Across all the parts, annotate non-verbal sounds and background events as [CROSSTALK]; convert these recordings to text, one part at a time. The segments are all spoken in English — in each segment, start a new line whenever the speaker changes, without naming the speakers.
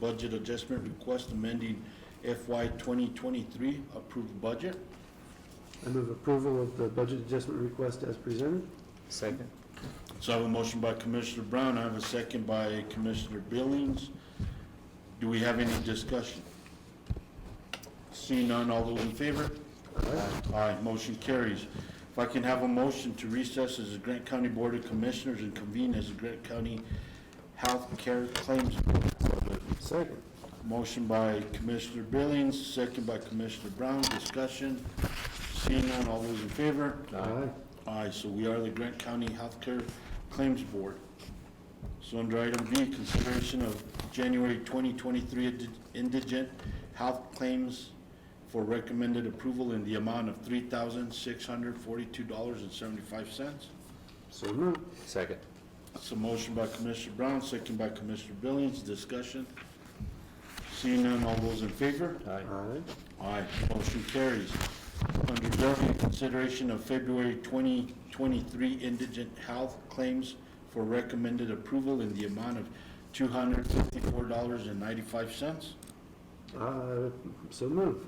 Budget adjustment request amending FY 2023 approved budget.
I move approval of the budget adjustment request as presented.
Second.
So I have a motion by Commissioner Brown, I have a second by Commissioner Billings. Do we have any discussion? Seeing none, all those in favor? Aye, motion carries. If I can have a motion to recess as the Grant County Board of Commissioners and convene as the Grant County Health Care Claims Board.
Second.
Motion by Commissioner Billings, second by Commissioner Brown, discussion. Seeing none, all those in favor?
Aye.
Aye, so we are the Grant County Healthcare Claims Board. So under item B, consideration of January 2023 indi- indigent health claims for recommended approval in the amount of $3,642.75.
So moved.
Second.
It's a motion by Commissioner Brown, second by Commissioner Billings, discussion. Seeing none, all those in favor?
Aye.
Aye.
Aye, motion carries. Under government consideration of February 2023 indigent health claims for recommended approval in the amount of $254.95.
Uh, So moved.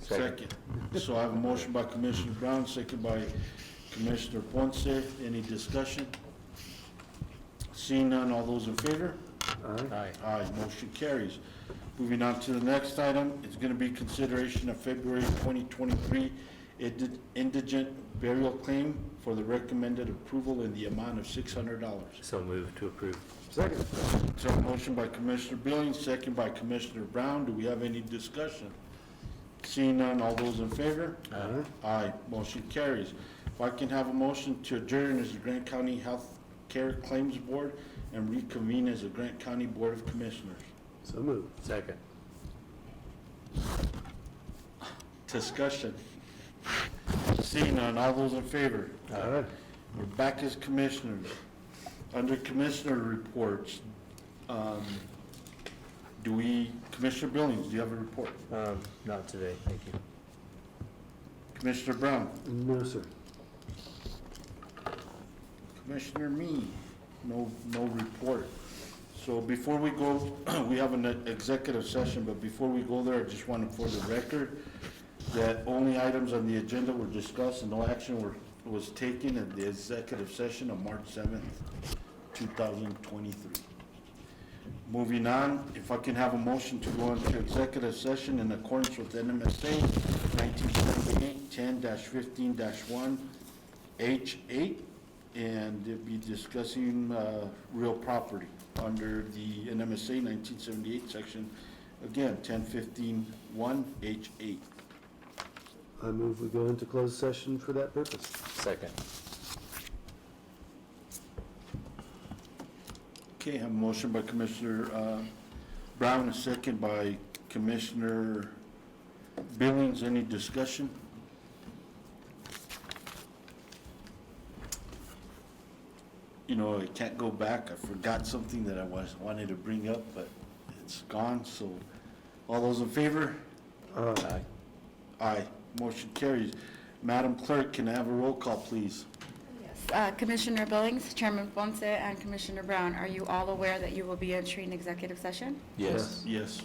Second.
Second. So I have a motion by Commissioner Brown, second by Commissioner Ponce. Any discussion? Seeing none, all those in favor?
Aye.
Aye.
Aye, motion carries. Moving on to the next item, it's going to be consideration of February 2023 indi- indigent burial claim for the recommended approval in the amount of $600.
So move to approve.
Second.
So a motion by Commissioner Billings, second by Commissioner Brown. Do we have any discussion? Seeing none, all those in favor?
Aye.
Aye, motion carries. If I can have a motion to adjourn as the Grant County Health Care Claims Board and reconvene as the Grant County Board of Commissioners.
So moved.
Second.
Discussion. Seeing none, all those in favor?
Aye.
We're back as commissioners. Under commissioner reports, um, do we, Commissioner Billings, do you have a report?
Um, not today, thank you.
Commissioner Brown?
No, sir.
Commissioner Me, no, no report. So before we go, [CLEARS THROAT] we have an executive session, but before we go there, I just wanted for the record that only items on the agenda were discussed and no action were, was taken at the executive session of March seventh, two thousand twenty-three. Moving on, if I can have a motion to go into executive session in accordance with NMSA 1978-10-15-1H8, and it'd be discussing uh, real property under the NMSA 1978 section, again, 10-15-1H8.
I move we go into closed session for that purpose.
Second.
Okay, I have a motion by Commissioner uh, Brown, a second by Commissioner Billings. Any discussion? You know, I can't go back. I forgot something that I was, wanted to bring up, but it's gone, so all those in favor?
Aye.
Aye.
Aye. Motion carries. Madam Clerk, can I have a roll call, please?
Uh, Commissioner Billings, Chairman Ponce, and Commissioner Brown, are you all aware that you will be entering executive session?
Yes.
Yes.